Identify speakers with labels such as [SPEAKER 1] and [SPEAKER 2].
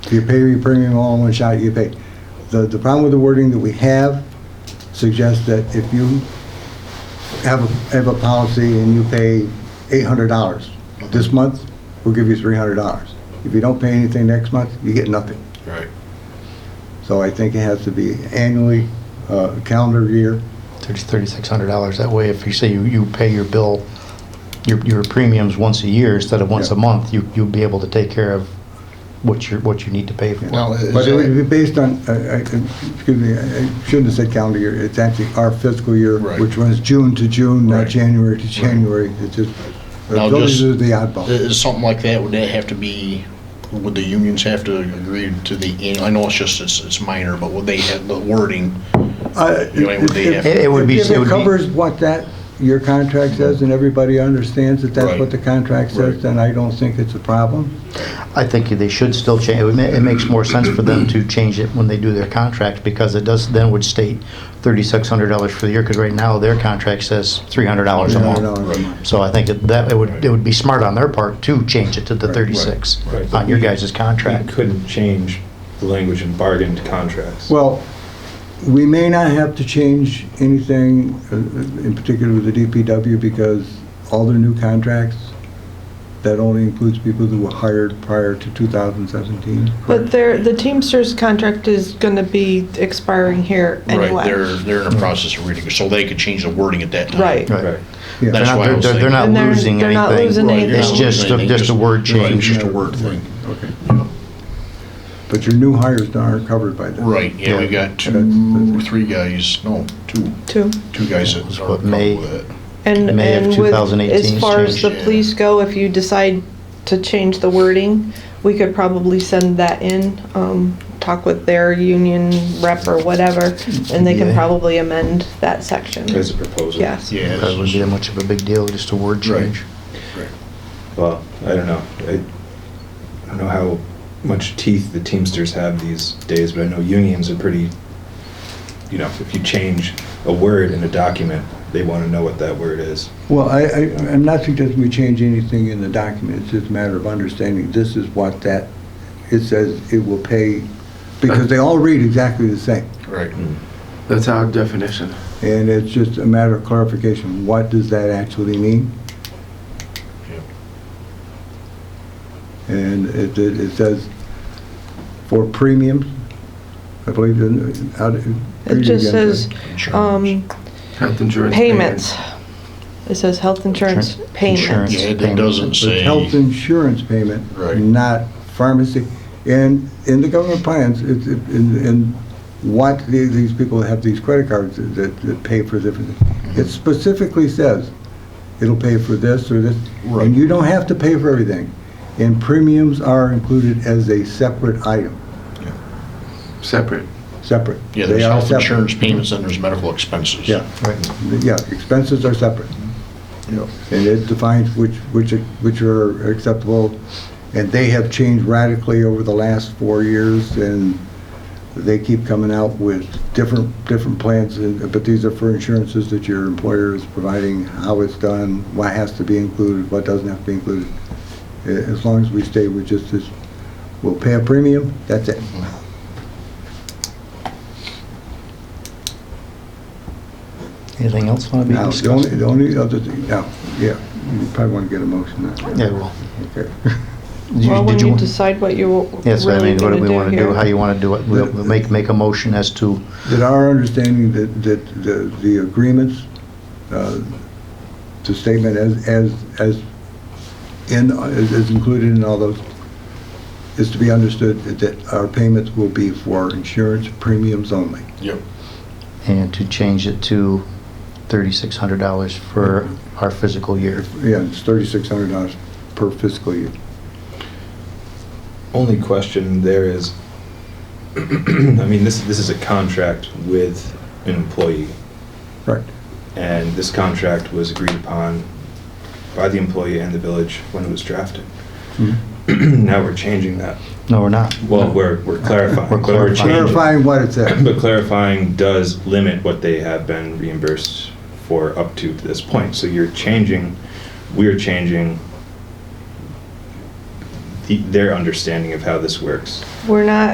[SPEAKER 1] you pay your premium all in one shot, you pay. The, the problem with the wording that we have suggests that if you have, a- have a policy and you pay eight hundred dollars this month, we'll give you three hundred dollars. If you don't pay anything next month, you get nothing.
[SPEAKER 2] Right.
[SPEAKER 1] So I think it has to be annually, uh, calendar year.
[SPEAKER 3] There's thirty-six hundred dollars. That way, if you say you, you pay your bill, your, your premiums once a year instead of once a
[SPEAKER 1] Yeah.
[SPEAKER 3] month, you, you'll be able to take care of what you're, what you need to pay for.
[SPEAKER 2] Now, is
[SPEAKER 1] But it would
[SPEAKER 2] that-
[SPEAKER 1] be based on, I- I- excuse me, I I shouldn't have said calendar year, it's actually our fiscal year,
[SPEAKER 2] Right.
[SPEAKER 1] which runs June to June, not
[SPEAKER 2] Right.
[SPEAKER 1] January to January. It's just,
[SPEAKER 2] Now,
[SPEAKER 1] those
[SPEAKER 2] just-
[SPEAKER 1] are the oddball.
[SPEAKER 2] is something like that, would that have to be, would the unions have to agree to the, I know it's just, it's, it's minor, but would they have the wording?
[SPEAKER 1] Uh,
[SPEAKER 2] You know, it would be-
[SPEAKER 1] if-
[SPEAKER 3] It- it would be-
[SPEAKER 1] If
[SPEAKER 3] it
[SPEAKER 1] it
[SPEAKER 3] would be-
[SPEAKER 1] covers what that, your contract says, and everybody understands that that's
[SPEAKER 2] Right.
[SPEAKER 1] what the contract says,
[SPEAKER 2] Right.
[SPEAKER 1] then I don't think it's a problem.
[SPEAKER 3] I think they should still change, it ma- it makes more sense for them to change it when they do their contract, because it does, then would state thirty-six hundred dollars for the year, because right now, their contract says three hundred dollars a month.
[SPEAKER 1] $300 a month.
[SPEAKER 3] So I think that- that, it would, it would be smart on their part to change it to the thirty-six
[SPEAKER 4] right, right.
[SPEAKER 3] on your guys'
[SPEAKER 4] I
[SPEAKER 3] contract.
[SPEAKER 4] couldn't change the language in bargained contracts.
[SPEAKER 1] Well, we may not have to change anything, uh, in particular with the DPW, because all their new contracts, that only includes people who were hired prior to 2017.
[SPEAKER 5] But their, the Teamsters contract is gonna be expiring here
[SPEAKER 2] Right, they're,
[SPEAKER 5] anyway.
[SPEAKER 2] they're in the process of reading, it, so they could change the wording at that time.
[SPEAKER 5] Right.
[SPEAKER 4] Right.
[SPEAKER 1] Yeah.
[SPEAKER 3] They're
[SPEAKER 2] That's
[SPEAKER 3] not,
[SPEAKER 2] why I
[SPEAKER 3] they're-
[SPEAKER 2] was
[SPEAKER 3] they're, they're
[SPEAKER 2] thinking-
[SPEAKER 3] not
[SPEAKER 5] And they're-
[SPEAKER 3] losing
[SPEAKER 5] they're not
[SPEAKER 3] anything.
[SPEAKER 5] losing
[SPEAKER 2] Right, you're
[SPEAKER 5] It's
[SPEAKER 2] not
[SPEAKER 3] just
[SPEAKER 2] losing
[SPEAKER 3] a-
[SPEAKER 2] anything,
[SPEAKER 3] just a word
[SPEAKER 2] right, it's
[SPEAKER 3] change.
[SPEAKER 2] Just a word thing.
[SPEAKER 1] Okay. But your new hires aren't covered by that.
[SPEAKER 2] Right, yeah, we
[SPEAKER 3] Yeah.
[SPEAKER 2] got two, three guys, no, two,
[SPEAKER 5] Too.
[SPEAKER 2] two guys that
[SPEAKER 3] What,
[SPEAKER 2] are
[SPEAKER 3] May?
[SPEAKER 2] comfortable with it.
[SPEAKER 5] And,
[SPEAKER 3] May of
[SPEAKER 5] and with,
[SPEAKER 3] 2018
[SPEAKER 5] as far as the
[SPEAKER 2] changed, yeah.
[SPEAKER 5] police go, if you decide to change the wording, we could probably send that in, um, talk with their union rep or whatever, and they can
[SPEAKER 3] Yeah.
[SPEAKER 5] probably amend that section.
[SPEAKER 4] As a proposal.
[SPEAKER 5] Yes.
[SPEAKER 2] Yeah.
[SPEAKER 3] That wouldn't be that much of a big deal, just a word
[SPEAKER 2] Right.
[SPEAKER 3] change.
[SPEAKER 4] Well, I don't know. I I don't know how much teeth the Teamsters have these days, but I know unions are pretty, you know, if you change a word in a document, they want to know what that word is.
[SPEAKER 1] Well, I, I, I'm not suggesting we change anything in the document, it's just a matter of understanding, this is what that, it says it will pay, because they all read exactly the same.
[SPEAKER 2] Right,
[SPEAKER 6] That's our definition.
[SPEAKER 1] And it's just a matter of clarification, what does that actually mean? And it, it it says for premiums, I believe, in- out.
[SPEAKER 5] It just says,
[SPEAKER 2] insurance.
[SPEAKER 5] um,
[SPEAKER 6] Health insurance.
[SPEAKER 5] payments. It says health insurance
[SPEAKER 3] Insurance-
[SPEAKER 5] payments.
[SPEAKER 2] Yeah, it- it doesn't
[SPEAKER 1] The
[SPEAKER 2] say.
[SPEAKER 1] health insurance payment,
[SPEAKER 2] Right.
[SPEAKER 1] not pharmacy. And in the government plans, it's, it- in, in what the- these people have these credit cards that, that pay for different,
[SPEAKER 2] Mm-hmm.
[SPEAKER 1] it specifically says, it'll pay for this or this.
[SPEAKER 2] Right.
[SPEAKER 1] And you don't have to pay for everything. And premiums are included as a separate item,
[SPEAKER 6] Separate.
[SPEAKER 1] separate.
[SPEAKER 2] Yeah,
[SPEAKER 1] They
[SPEAKER 2] there's
[SPEAKER 1] are
[SPEAKER 2] health
[SPEAKER 1] separate.
[SPEAKER 2] insurance payments and there's medical expenses.
[SPEAKER 1] Yeah.
[SPEAKER 3] Right.
[SPEAKER 1] Yeah, expenses are separate.
[SPEAKER 2] Yeah.
[SPEAKER 1] And it defines which, which, which are acceptable, and they have changed radically over the last four years, and they keep coming out with different, different plans, and- but these are for insurances that your employer is providing, how it's done, what has to be included, what doesn't have to be included. A- As long as we stay with just this, we'll pay a premium, that's it.
[SPEAKER 3] Mm-hmm. Anything else want to be
[SPEAKER 1] Now, the only,
[SPEAKER 3] discussed?
[SPEAKER 1] the only other thing, now, yeah, you probably want to get a motion on
[SPEAKER 3] Yeah,
[SPEAKER 1] that.
[SPEAKER 3] well.
[SPEAKER 1] Okay.
[SPEAKER 3] did you-
[SPEAKER 5] Well, when
[SPEAKER 3] did
[SPEAKER 5] you
[SPEAKER 3] wa-
[SPEAKER 5] decide what you're
[SPEAKER 3] Yes, I
[SPEAKER 5] really
[SPEAKER 3] mean, what
[SPEAKER 5] gonna
[SPEAKER 3] do we
[SPEAKER 5] do
[SPEAKER 3] want to do,
[SPEAKER 5] here.
[SPEAKER 3] how you want to do it. We'll we'll make, make a motion as to,
[SPEAKER 1] that our understanding that, that the, the agreements, uh, the statement as, as, as in, as as included in all those, is to be understood that- that our payments will be for insurance premiums only.
[SPEAKER 2] Yep,
[SPEAKER 3] and to change it to thirty-six hundred dollars for our physical year.
[SPEAKER 1] Yeah, it's thirty-six hundred dollars per fiscal year.
[SPEAKER 4] Only question there is, I mean, this, this is a contract with an employee,
[SPEAKER 1] Right.
[SPEAKER 4] and this contract was agreed upon by the employee and the village when it was drafted. Mm-hmm. Now we're changing that.
[SPEAKER 3] No, we're not.
[SPEAKER 4] Well, we're, we're clarifying.
[SPEAKER 3] We're
[SPEAKER 4] but we're
[SPEAKER 3] clarifying.
[SPEAKER 4] changing-
[SPEAKER 1] Clarifying what it says.
[SPEAKER 4] But clarifying does limit what they have been reimbursed for up to this point. So you're changing, we're changing their understanding of how this works.
[SPEAKER 5] We're not